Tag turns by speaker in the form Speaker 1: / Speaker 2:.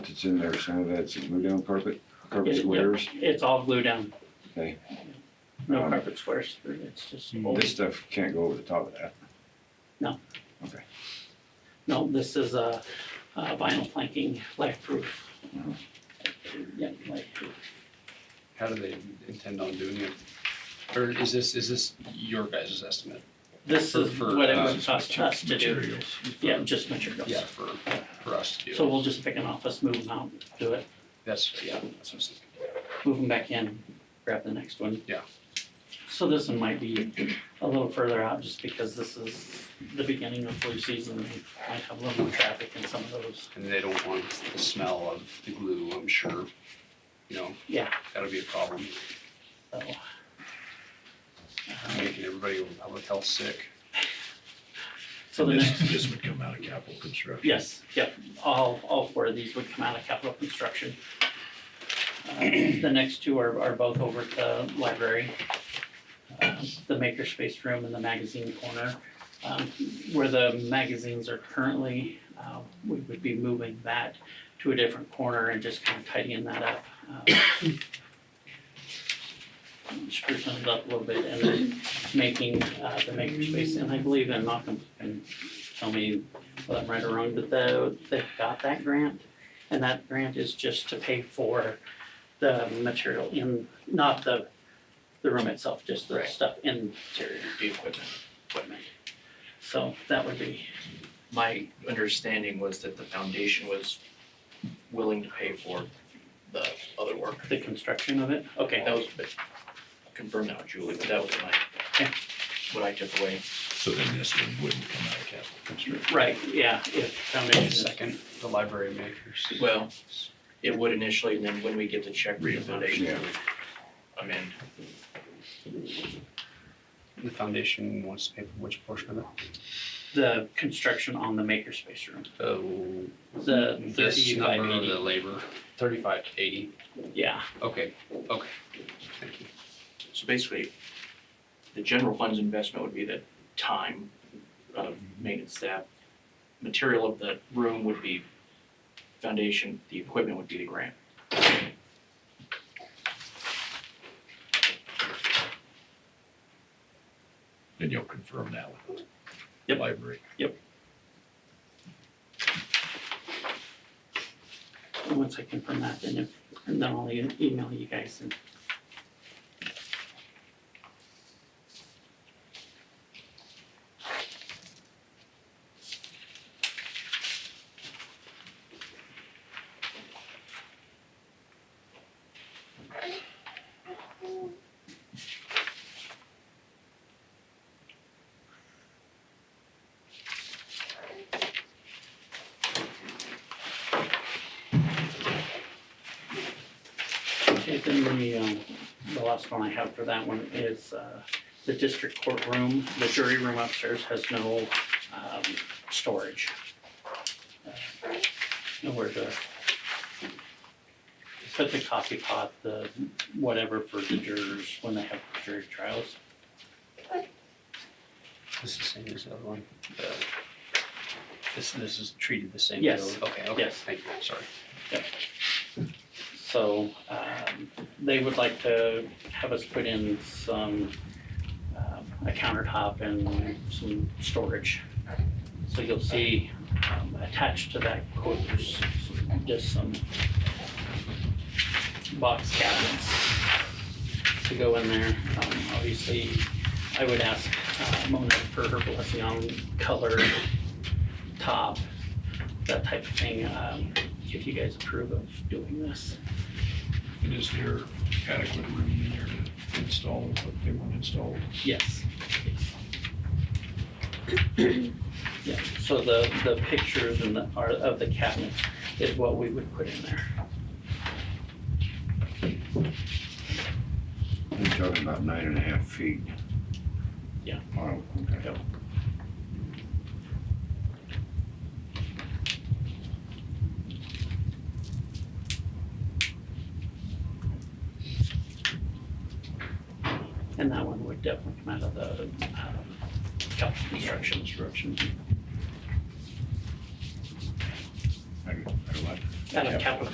Speaker 1: that's in there, some of that's glue down carpet, carpet
Speaker 2: It-
Speaker 1: squares.
Speaker 2: It's all glued down.
Speaker 1: Okay.
Speaker 2: No
Speaker 1: Um, Mm.
Speaker 2: carpet squares, it's just, old.
Speaker 1: This stuff can't go over the top of that.
Speaker 2: no, this is a a vinyl planking, life proof. Yeah, life proof.
Speaker 3: How do they intend on doing it? Or is this, is this your guys' estimate?
Speaker 2: This
Speaker 3: For-
Speaker 2: is
Speaker 3: for,
Speaker 2: what it
Speaker 3: uh,
Speaker 2: would cost us to do.
Speaker 4: materials.
Speaker 2: Yeah, just materials.
Speaker 3: Yeah, for, for us to do.
Speaker 2: So we'll just pick an office, move them out, do it,
Speaker 3: That's, yeah, that's what I was thinking.
Speaker 2: move them back in, grab the next one.
Speaker 3: Yeah.
Speaker 2: So this one might be a little further out just because this is the beginning of flu season. They might have a little more traffic in some of those.
Speaker 3: And they don't want the smell of the glue, I'm sure. You know?
Speaker 2: Yeah.
Speaker 3: That'll be a problem,
Speaker 2: So, um,
Speaker 3: making everybody over public health sick.
Speaker 2: So the
Speaker 4: And this-
Speaker 2: next,
Speaker 4: This would come out of capital construction.
Speaker 2: yes, yep, all, all four of these would come out of capital construction. Uh, The next two are, are both over at the library. Uh, The makerspace room and the magazine corner. Um, Where the magazines are currently, uh, we would be moving that to a different corner and just kind of tidying that up. um, Sprucing it up a little bit and then making uh, the makerspace, and I believe, and Malcolm can tell me whether I'm right or wrong, but the, they got that grant. And that grant is just to pay for the material in, not the, the room itself, just the
Speaker 3: Right.
Speaker 2: stuff interior.
Speaker 5: the equipment.
Speaker 2: equipment. So that would be,
Speaker 5: My understanding was that the foundation was willing to pay for the other work.
Speaker 2: the construction of it, okay.
Speaker 5: That was, but confirm that with Julie, but that was my, what I took away.
Speaker 4: So then this one wouldn't come out of capital construction.
Speaker 2: Right, yeah, if foundation,
Speaker 3: Second, the library makers.
Speaker 5: Well, it would initially, and then when we get the check from the foundation,
Speaker 1: Yeah.
Speaker 5: we would amend.
Speaker 3: The foundation wants to pay for which portion of it?
Speaker 2: the construction on the makerspace room,
Speaker 3: Oh.
Speaker 2: the
Speaker 3: This
Speaker 2: uh, thirty-five
Speaker 3: number,
Speaker 2: eighty,
Speaker 3: the labor, thirty-five eighty,
Speaker 2: yeah,
Speaker 3: okay, okay. Thank you.
Speaker 5: So basically, the general fund's investment would be the time of maintenance staff. Material of the room would be foundation, the equipment would be the grant.
Speaker 4: And you'll confirm that with the
Speaker 2: Yep.
Speaker 4: library.
Speaker 2: And once I confirm that, then if, and then I'll e- email you guys and. Okay, then the, um, the last one I have for that one is, uh, the district courtroom, the jury room upstairs has no, um, storage. Uh, Nowhere to put the coffee pot, the whatever for the jurors when they have jury trials.
Speaker 3: This is the same as the other one? The- Uh, This, this is treated the same? as
Speaker 2: Yes.
Speaker 3: the other one? Okay, okay,
Speaker 2: Yes.
Speaker 3: thank you, sorry.
Speaker 2: So, um, they would like to have us put in some, um, a countertop and some storage. So you'll see, um, attached to that quote, there's just some box cabinets to go in there. Um, obviously, I would ask uh, Mona for her blessing on color, top, that type of thing, um, if you guys approve of doing this.
Speaker 4: And is there adequate room in there to install what they want installed?
Speaker 2: Yes. Yeah, so the, the pictures and the, are of the cabinets is what we would put in there.
Speaker 1: You're talking about nine and a half feet.
Speaker 2: Yeah.
Speaker 1: Wow, okay.
Speaker 2: And that one would definitely come out of the, um, capital construction. Construction.
Speaker 1: I, I like it.
Speaker 2: out of capital